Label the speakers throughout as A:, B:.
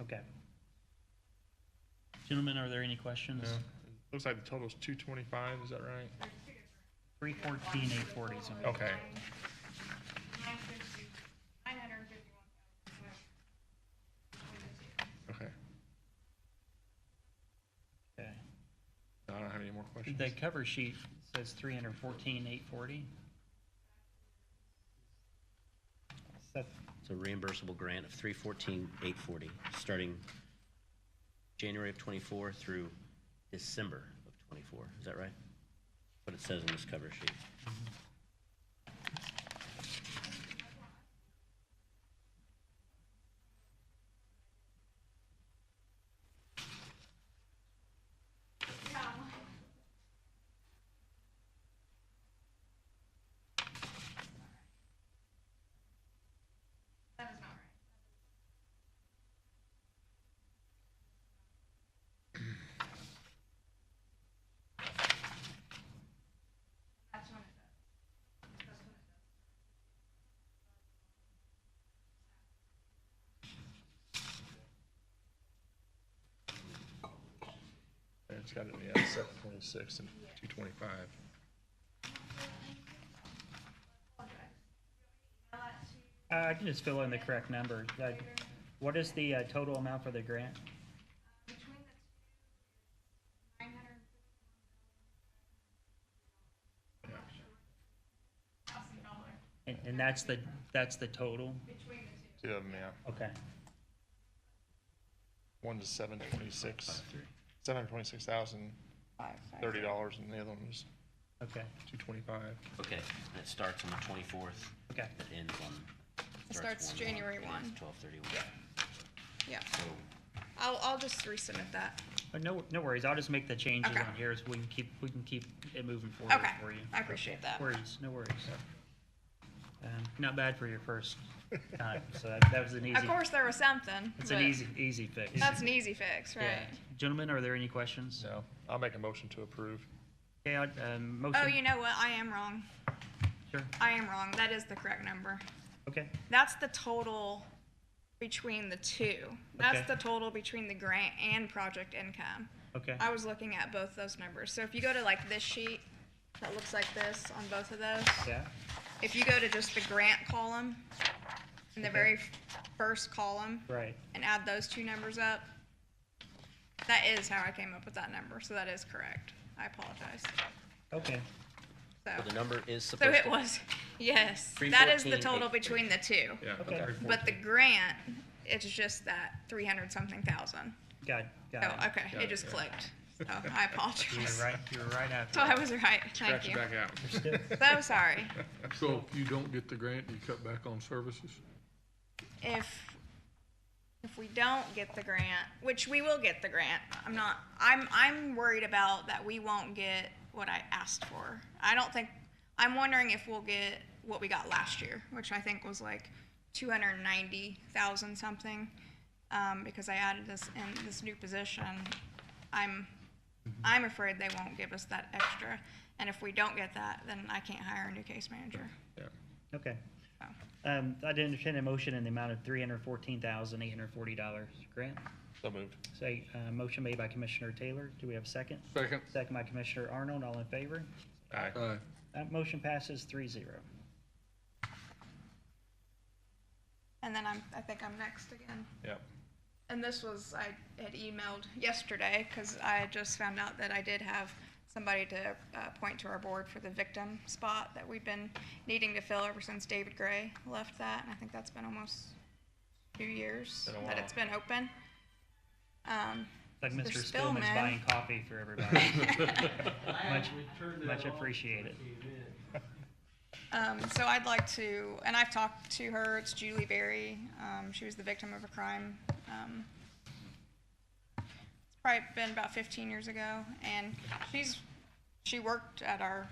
A: Okay. Gentlemen, are there any questions?
B: Yeah. Looks like the total's two twenty-five, is that right?
A: Three fourteen, eight forty.
B: Okay.
C: Nine hundred and fifty-one thousand.
B: Okay.
A: Okay.
B: I don't have any more questions.
A: The cover sheet says three hundred fourteen, eight forty. That's,
D: It's a reimbursable grant of three fourteen, eight forty, starting January of twenty-four through December of twenty-four. Is that right? What it says on this cover sheet.
C: That is not right. That's when it does. That's when it does.
B: It's got to be at seven twenty-six and two twenty-five.
A: uh, I can just fill in the correct number. Like, What is the uh, total amount for the grant?
C: Between the two, nine hundred thousand dollars
A: And, and that's the, that's the total?
C: between the two.
B: Two of them, yeah.
A: Okay.
B: One's seven twenty-six, seven twenty-six thousand, thirty dollars, and the other one was
A: Okay,
B: two twenty-five.
D: Okay, and it starts on the twenty-fourth,
A: okay.
D: it ends on.
E: It starts January one.
D: Twelve thirty-one.
E: Yeah,
D: So,
E: I'll, I'll just resubmit that.
A: But no, no worries. I'll just make the changes
E: Okay.
A: on here so we can keep, we can keep it moving forward
E: Okay,
A: for you.
E: I appreciate that.
A: No Worries, no worries. Um, not bad for your first time, so that, that was an easy.
E: Of course, there was something.
A: It's an
E: but
A: easy, easy fix.
E: That's an easy fix,
A: Yeah.
E: right?
A: Gentlemen, are there any questions?
B: So I'll make a motion to approve.
A: Okay, I'd, um, motion.
E: Oh, you know what? I am wrong.
A: Sure,
E: I am wrong. That is the correct number.
A: okay,
E: That's the total between the two. That's
A: Okay.
E: the total between the grant and project income.
A: okay,
E: I was looking at both those numbers. So if you go to like this sheet that looks like this on both of those,
A: yeah,
E: if you go to just the grant column in the
A: Okay.
E: very f- first column,
A: right,
E: and add those two numbers up, that is how I came up with that number. So that is correct. I apologize.
A: okay,
D: well, the
E: So,
D: number is
E: so
D: supposed to.
E: it was, yes, that is the
D: 314,
E: total
D: eight-
E: between the two.
B: Yeah.
A: Okay.
E: But the grant, it's just that 300 something thousand.
A: got, got it.
E: Oh, okay.
B: Got
E: It
B: it,
E: just
B: yeah.
E: clicked. So I
A: You were
E: apologize.
A: right, you were right after.
E: So I was right. Thank
B: Scratch it
E: you.
B: back out.
E: So sorry.
F: So if you don't get the grant, you cut back on services?
E: If if we don't get the grant, which we will get the grant, I'm not. I'm I'm worried about that we won't get what I asked for. I don't think. I'm wondering if we'll get what we got last year, which I think was like 290,000 something, um, because I added this in this new position. I'm I'm afraid they won't give us that extra, and if we don't get that, then I can't hire a new case manager.
A: Okay.
E: Oh.
A: Um, I'd entertain a motion in the amount of three hundred fourteen thousand, eight hundred forty dollars. Grant,
B: So moved.
A: say, uh, motion made by Commissioner Taylor. Do we have a second?
F: Second.
A: Second by Commissioner Arnold. All in favor?
B: Aye.
F: Aye.
A: That motion passes three zero.
E: And then I'm I think I'm next again.
B: Yep.
E: And this was, I had emailed yesterday because I had just found out that I did have somebody to uh, point to our board for the victim spot that we've been needing to fill ever since David Gray left that. And I think that's been almost two years
B: Been a
E: that
B: while.
E: it's been open. Um,
A: Like
E: Mr.
A: Mr. Spillman's
E: Spillman.
A: buying coffee for everybody. Much,
G: Turned it
A: much
G: off.
A: appreciated.
E: Um, so I'd like to, and I've talked to her, it's Julie Berry. Um, she was the victim of a crime. Um, it's probably been about 15 years ago, and she's she worked at our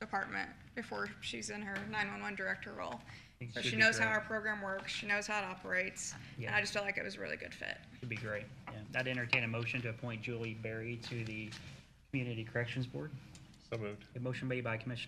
E: department before she's in her 911 director role.
A: Think
E: So
A: she'd
E: she
A: be
E: knows how
A: great.
E: our program works, she knows how it operates, and
A: Yeah.
E: I just felt like it was a really good fit.
A: It'd be great. Yeah. I'd entertain a motion to appoint Julie Berry to the Community Corrections Board.
B: So moved.
A: A motion made by Commissioner